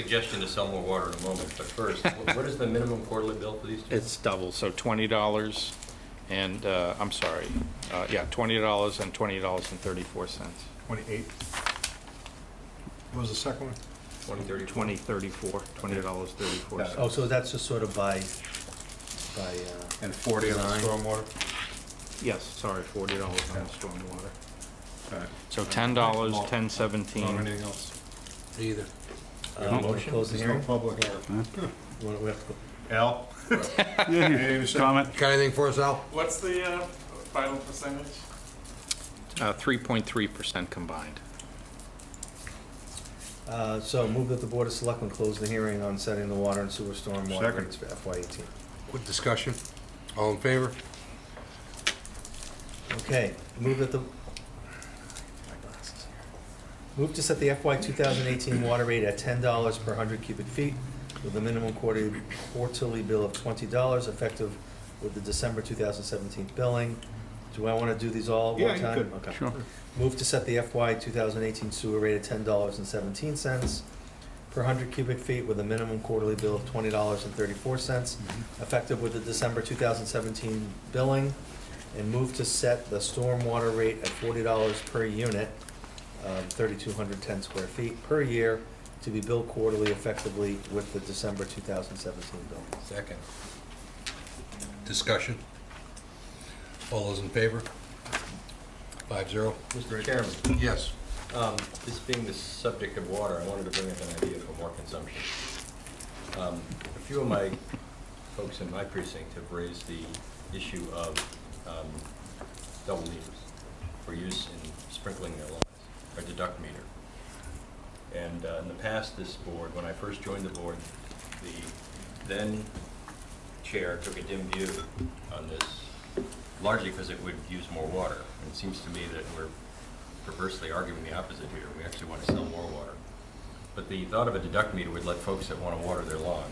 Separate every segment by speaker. Speaker 1: Suggestion to sell more water in a moment, but first, wh- what is the minimum quarterly bill for these two?
Speaker 2: It's double, so twenty dollars and, uh, I'm sorry, uh, yeah, twenty dollars and twenty dollars and thirty-four cents.
Speaker 3: 28. What was the second one?
Speaker 1: Twenty, thirty?
Speaker 2: Twenty thirty-four, twenty dollars thirty-four
Speaker 3: Yeah.
Speaker 4: Oh,
Speaker 2: cents.
Speaker 4: so that's just sort of by, by, uh,
Speaker 3: And 40 on the
Speaker 4: Nine.
Speaker 3: stormwater?
Speaker 2: Yes, sorry, forty dollars on the stormwater.
Speaker 3: All right.
Speaker 2: So ten dollars,
Speaker 3: Well,
Speaker 2: ten
Speaker 3: Not
Speaker 2: seventeen.
Speaker 3: anything else?
Speaker 4: either.
Speaker 1: a
Speaker 4: Um,
Speaker 1: motion?
Speaker 4: Close the
Speaker 3: There's no
Speaker 4: hearing.
Speaker 3: public hearing.
Speaker 4: Wanna- we have to go-
Speaker 3: Al? Comment?
Speaker 4: Got anything for us, Al?
Speaker 5: What's the uh, final percentage?
Speaker 2: Uh, three point three percent combined.
Speaker 4: Uh, so move that the Board of Selectmen close the hearing on setting the water and sewer stormwater
Speaker 3: Second.
Speaker 4: rates for FY eighteen.
Speaker 6: Quick discussion. All in favor?
Speaker 4: Okay, move that the, my glasses here. Move to set the FY two thousand eighteen water rate at ten dollars per hundred cubic feet with a minimum quarterly, quarterly bill of twenty dollars effective with the December two thousand seventeen billing. Do I wanna do these all at
Speaker 3: Yeah,
Speaker 4: one
Speaker 3: you
Speaker 4: time?
Speaker 3: could.
Speaker 4: Okay.
Speaker 2: Sure.
Speaker 4: Move to set the FY 2018 sewer rate at $10.17 per 100 cubic feet with a minimum quarterly bill of $20.34, effective with the December 2017 billing, and move to set the stormwater rate at $40 per unit, um, 3,210 square feet per year, to be billed quarterly effectively with the December 2017 billing.
Speaker 6: Second. Discussion. All those in favor? Five zero?
Speaker 1: Mr. Chairman,
Speaker 6: Yes.
Speaker 1: um, this being the subject of water, I wanted to bring up an idea for more consumption. Um, A few of my folks in my precinct have raised the issue of um, double meters for use in sprinkling their lawns, or deduct meter. And uh, in the past, this board, when I first joined the board, the then chair took a dim view on this, largely because it would use more water. And it seems to me that we're perversely arguing the opposite here. We actually want to sell more water. But the thought of a deduct meter would let folks that want to water their lawn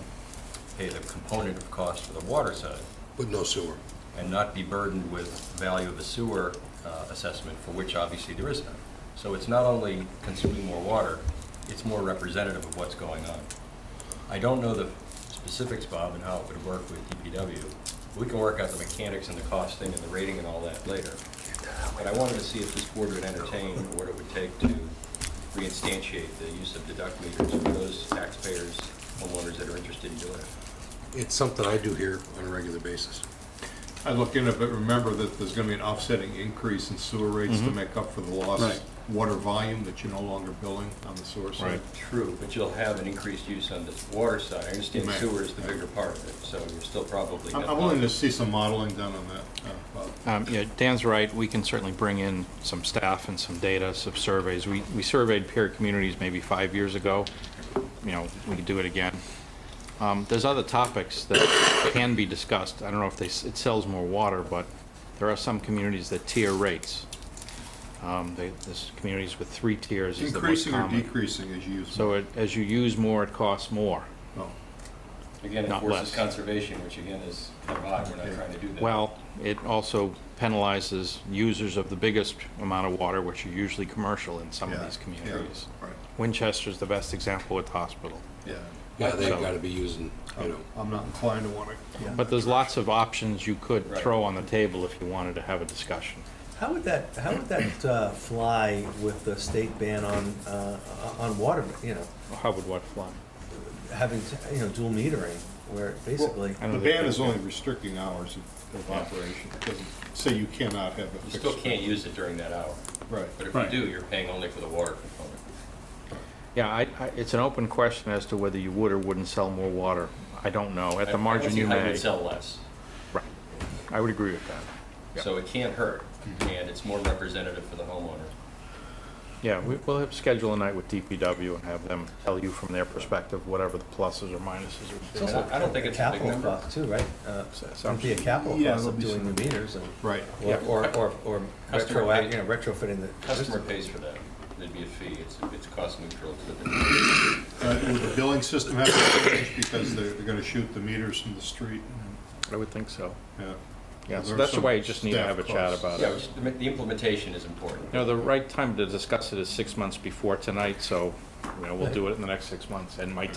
Speaker 1: pay the component of cost for the water side
Speaker 6: But no sewer.
Speaker 1: and not be burdened with value of a sewer uh, assessment, for which obviously there is none. So it's not only consuming more water, it's more representative of what's going on. I don't know the specifics, Bob, and how it would work with DPW. We can work out the mechanics and the costing and the rating and all that later. But I wanted to see if this board would entertain what it would take to reinstantiate the use of deduct meters for those taxpayers, homeowners that are interested in doing it.
Speaker 6: It's something I do here on a regular basis.
Speaker 3: I look into it, but remember that there's gonna be an offsetting increase in sewer rates
Speaker 2: Mm-hmm.
Speaker 3: to make up for the lost water volume that you're no longer billing on the sewer side.
Speaker 2: Right.
Speaker 1: True, but you'll have an increased use on this water side. I understand
Speaker 3: Right.
Speaker 1: sewer is the bigger part of it, so you're still probably.
Speaker 3: I'm
Speaker 1: net
Speaker 3: I'm willing to
Speaker 1: positive.
Speaker 3: see some modeling done on that, uh, Bob.
Speaker 2: Um, yeah, Dan's right. We can certainly bring in some staff and some data, some surveys. We, we surveyed peer communities maybe five years ago. You know, we could do it again. Um, there's other topics that can be discussed. I don't know if they, s- it sells more water, but there are some communities that tier rates. Um, they, there's communities with three tiers is the most
Speaker 3: Increasing or
Speaker 2: common.
Speaker 3: decreasing as you use.
Speaker 2: So it, as you use more, it costs more.
Speaker 3: Oh.
Speaker 1: Again, it
Speaker 2: not
Speaker 1: forces
Speaker 2: less.
Speaker 1: conservation, which again is provide, we're not
Speaker 3: Yeah.
Speaker 1: trying to do that.
Speaker 2: Well, it also penalizes users of the biggest amount of water, which are usually commercial in some of
Speaker 3: yeah,
Speaker 2: these
Speaker 3: yeah,
Speaker 2: communities.
Speaker 3: Right,
Speaker 2: Winchester's the best example with hospital.
Speaker 3: yeah.
Speaker 6: Yeah, they've gotta be using, you know,
Speaker 3: I'm not inclined to want to.
Speaker 2: But there's lots of options you could
Speaker 1: Right.
Speaker 2: throw on the table if you wanted to have a discussion.
Speaker 4: How would that, how would that uh, fly with the state ban on, uh, on water, you know?
Speaker 2: How would what fly?
Speaker 4: having, you know, dual metering, where basically,
Speaker 2: I don't
Speaker 3: The
Speaker 2: think
Speaker 3: ban
Speaker 2: they
Speaker 3: is
Speaker 2: can.
Speaker 3: only restricting hours of- of operation. It doesn't say you cannot have a
Speaker 1: You
Speaker 3: fixed.
Speaker 1: still can't use it during that hour,
Speaker 3: Right.
Speaker 1: but if you do, you're paying only for the water component.
Speaker 2: Yeah, I, I, it's an open question as to whether you would or wouldn't sell more water. I don't know. At
Speaker 1: I-
Speaker 2: the margin, you
Speaker 1: I
Speaker 2: may.
Speaker 1: would sell less,
Speaker 2: Right. I would agree with that. Yeah.
Speaker 1: so it can't hurt, and it's more representative for the homeowner.
Speaker 2: Yeah, we, we'll have, schedule a night with DPW and have them tell you from their perspective whatever the pluses or minuses would be.
Speaker 1: also- I don't think it's a big
Speaker 4: capital
Speaker 1: number.
Speaker 4: cost too, right? Uh,
Speaker 2: So- so I'm-
Speaker 4: It'd be a capital
Speaker 3: Yeah,
Speaker 4: cost
Speaker 3: there'll
Speaker 4: of
Speaker 3: be
Speaker 4: doing
Speaker 3: some-
Speaker 4: the meters and,
Speaker 3: Right.
Speaker 4: or,
Speaker 2: Yeah.
Speaker 4: or, or- or
Speaker 1: Customer
Speaker 4: retroact,
Speaker 1: pay-
Speaker 4: you know, retrofitting the.
Speaker 1: Customer
Speaker 4: system.
Speaker 1: pays for that, there'd be a fee, it's, it's cost neutral to the,
Speaker 3: Uh, Would the billing system have to change because they're, they're gonna shoot the meters from the street?
Speaker 2: I would think so.
Speaker 3: Yeah.
Speaker 2: Yeah, so
Speaker 3: There are
Speaker 2: that's
Speaker 3: some
Speaker 2: why you just need to
Speaker 3: staff
Speaker 2: have a chat
Speaker 3: costs.
Speaker 2: about
Speaker 1: yeah,
Speaker 2: it.
Speaker 1: just the the implementation is important.
Speaker 2: You know, the right time to discuss it is six months before tonight, so, you know, we'll do it in the next six months. And my